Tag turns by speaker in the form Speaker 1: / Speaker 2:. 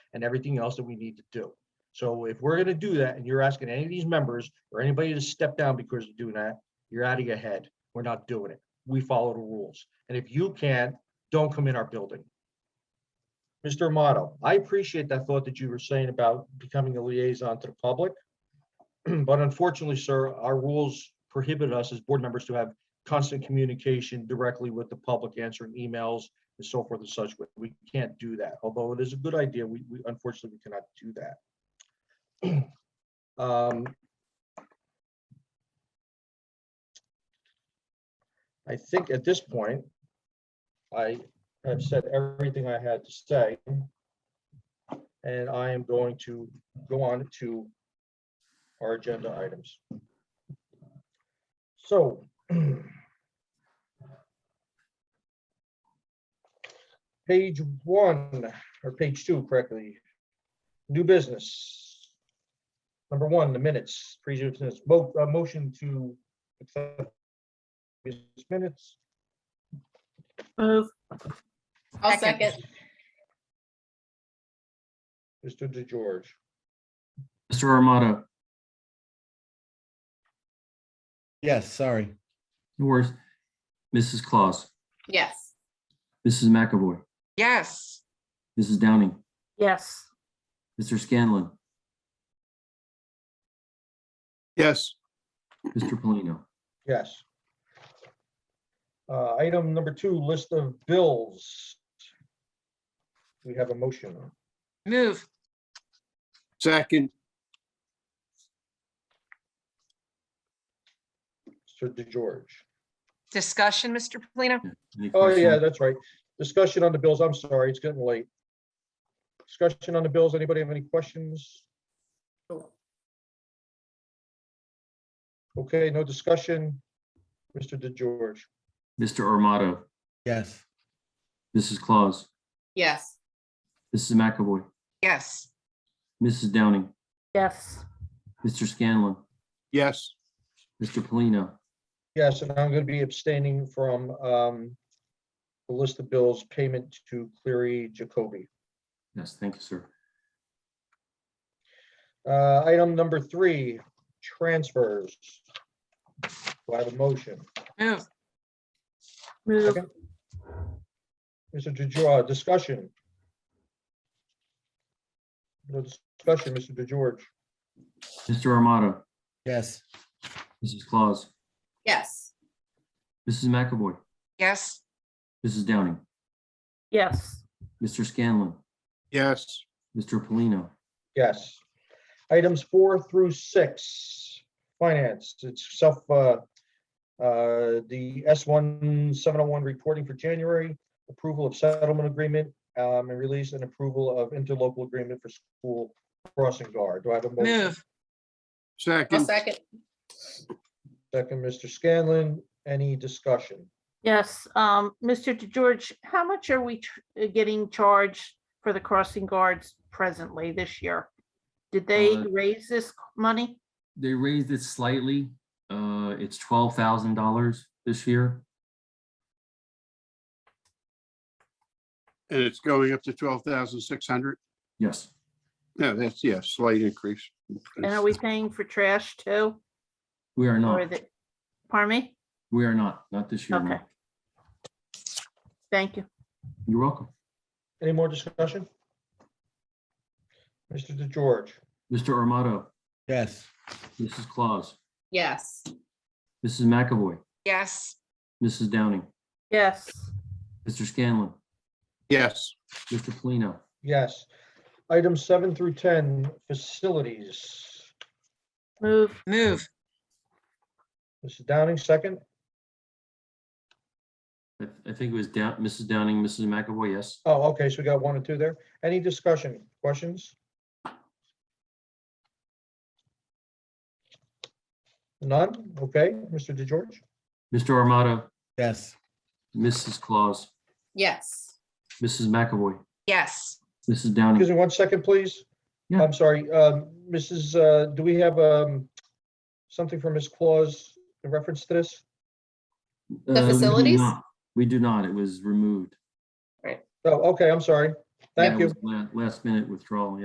Speaker 1: and everything else that we need to do. So if we're gonna do that, and you're asking any of these members or anybody to step down because of doing that, you're out of your head. We're not doing it. We follow the rules. And if you can't, don't come in our building. Mr. Amato, I appreciate that thought that you were saying about becoming a liaison to the public. But unfortunately, sir, our rules prohibit us as board members to have constant communication directly with the public, answering emails and so forth and such. We- We can't do that. Although it is a good idea, we, we unfortunately, we cannot do that. Um, I think at this point, I have said everything I had to say. And I am going to go on to our agenda items. So. Page one, or page two correctly, new business. Number one, the minutes, previous, mo- uh, motion to accept these minutes,
Speaker 2: Move,
Speaker 3: I'll
Speaker 4: Second.
Speaker 3: second.
Speaker 1: Mr. DeGeorge,
Speaker 5: Mr. Armato,
Speaker 6: Yes, sorry.
Speaker 5: no worries. Mrs. Claus,
Speaker 3: Yes.
Speaker 5: Mrs. McAvoy,
Speaker 4: Yes.
Speaker 5: Mrs. Downing,
Speaker 2: yes.
Speaker 5: Mr. Scanlon,
Speaker 7: yes,
Speaker 5: Mr. Polino.
Speaker 1: yes. Uh, item number two, list of bills. We have a motion.
Speaker 4: Move.
Speaker 7: second,
Speaker 1: Mr. DeGeorge.
Speaker 4: Discussion, Mr. Polino?
Speaker 5: Any
Speaker 1: Oh,
Speaker 5: questions?
Speaker 1: yeah, that's right. Discussion on the bills. I'm sorry, it's getting late. Discussion on the bills. Anybody have any questions? Okay, no discussion. Mr. DeGeorge,
Speaker 5: Mr. Armato,
Speaker 6: Yes,
Speaker 5: Mrs. Claus,
Speaker 3: Yes.
Speaker 5: Mrs. McAvoy,
Speaker 4: Yes.
Speaker 5: Mrs. Downing,
Speaker 2: Yes,
Speaker 5: Mr. Scanlon,
Speaker 7: yes,
Speaker 5: Mr. Polino,
Speaker 1: yes, and I'm going to be abstaining from um, the list of bills payment to Cleary Jacoby.
Speaker 5: yes, thank you, sir.
Speaker 1: Uh, Item number three, transfers. Do I have a motion?
Speaker 4: Move.
Speaker 2: move,
Speaker 1: Second. Mr. DeGeorge, uh, discussion. No discussion, Mr. DeGeorge.
Speaker 5: Mr. Armato,
Speaker 6: yes,
Speaker 5: Mrs. Claus,
Speaker 3: Yes.
Speaker 5: Mrs. McAvoy,
Speaker 4: Yes.
Speaker 5: Mrs. Downing,
Speaker 2: yes,
Speaker 5: Mr. Scanlon,
Speaker 7: yes,
Speaker 5: Mr. Polino,
Speaker 1: Yes. Items four through six, finance, it's self, uh, uh, the S one seven oh one reporting for January, approval of settlement agreement, um, and release and approval of interlocal agreement for school crossing guard. Do I have a motion?
Speaker 4: Move.
Speaker 3: I'll
Speaker 7: second,
Speaker 3: second.
Speaker 1: Second, Mr. Scanlon, any discussion?
Speaker 2: yes. Um, Mr. George, how much are we ch- uh, getting charged for the crossing guards presently this year? Did they
Speaker 5: Uh,
Speaker 2: raise this money?
Speaker 5: They raised it slightly. Uh, it's twelve thousand dollars this year.
Speaker 7: and it's going up to twelve thousand six hundred.
Speaker 5: Yes,
Speaker 7: No, that's, yeah, slight increase.
Speaker 2: And are we paying for trash too?
Speaker 5: we are
Speaker 2: Or
Speaker 5: not,
Speaker 2: the, pardon me?
Speaker 5: we are not, not this year. no.
Speaker 2: Okay. Thank you.
Speaker 5: You're welcome.
Speaker 1: Any more discussion? Mr. DeGeorge,
Speaker 5: Mr. Armato,
Speaker 6: yes,
Speaker 5: Mrs. Claus,
Speaker 3: Yes.
Speaker 5: Mrs. McAvoy,
Speaker 4: Yes.
Speaker 5: Mrs. Downing,
Speaker 2: Yes,
Speaker 5: Mr. Scanlon,
Speaker 7: Yes,
Speaker 5: Mr. Polino,
Speaker 1: yes. Items seven through ten, facilities.
Speaker 2: move,
Speaker 4: Move.
Speaker 1: Mrs. Downing, second.
Speaker 5: I I think it was down, Mrs. Downing, Mrs. McAvoy, yes.
Speaker 1: Oh, okay, so we got one and two there. Any discussion, questions? None? Okay, Mr. DeGeorge?
Speaker 5: Mr. Armato,
Speaker 6: yes,
Speaker 5: Mrs. Claus,
Speaker 3: Yes.
Speaker 5: Mrs. McAvoy,
Speaker 4: Yes.
Speaker 5: Mrs.
Speaker 1: Excuse
Speaker 5: Downing,
Speaker 1: me one second, please.
Speaker 5: Yeah.
Speaker 1: I'm sorry, um, Mrs., uh, do we have um, something for Ms. Claus in reference to this?
Speaker 5: Uh, we do
Speaker 3: facilities?
Speaker 5: not- We do not, it was removed.
Speaker 1: Oh, okay, I'm sorry.
Speaker 5: Yeah,
Speaker 8: Thank
Speaker 5: it
Speaker 8: you.
Speaker 5: was la- Last minute withdrawal,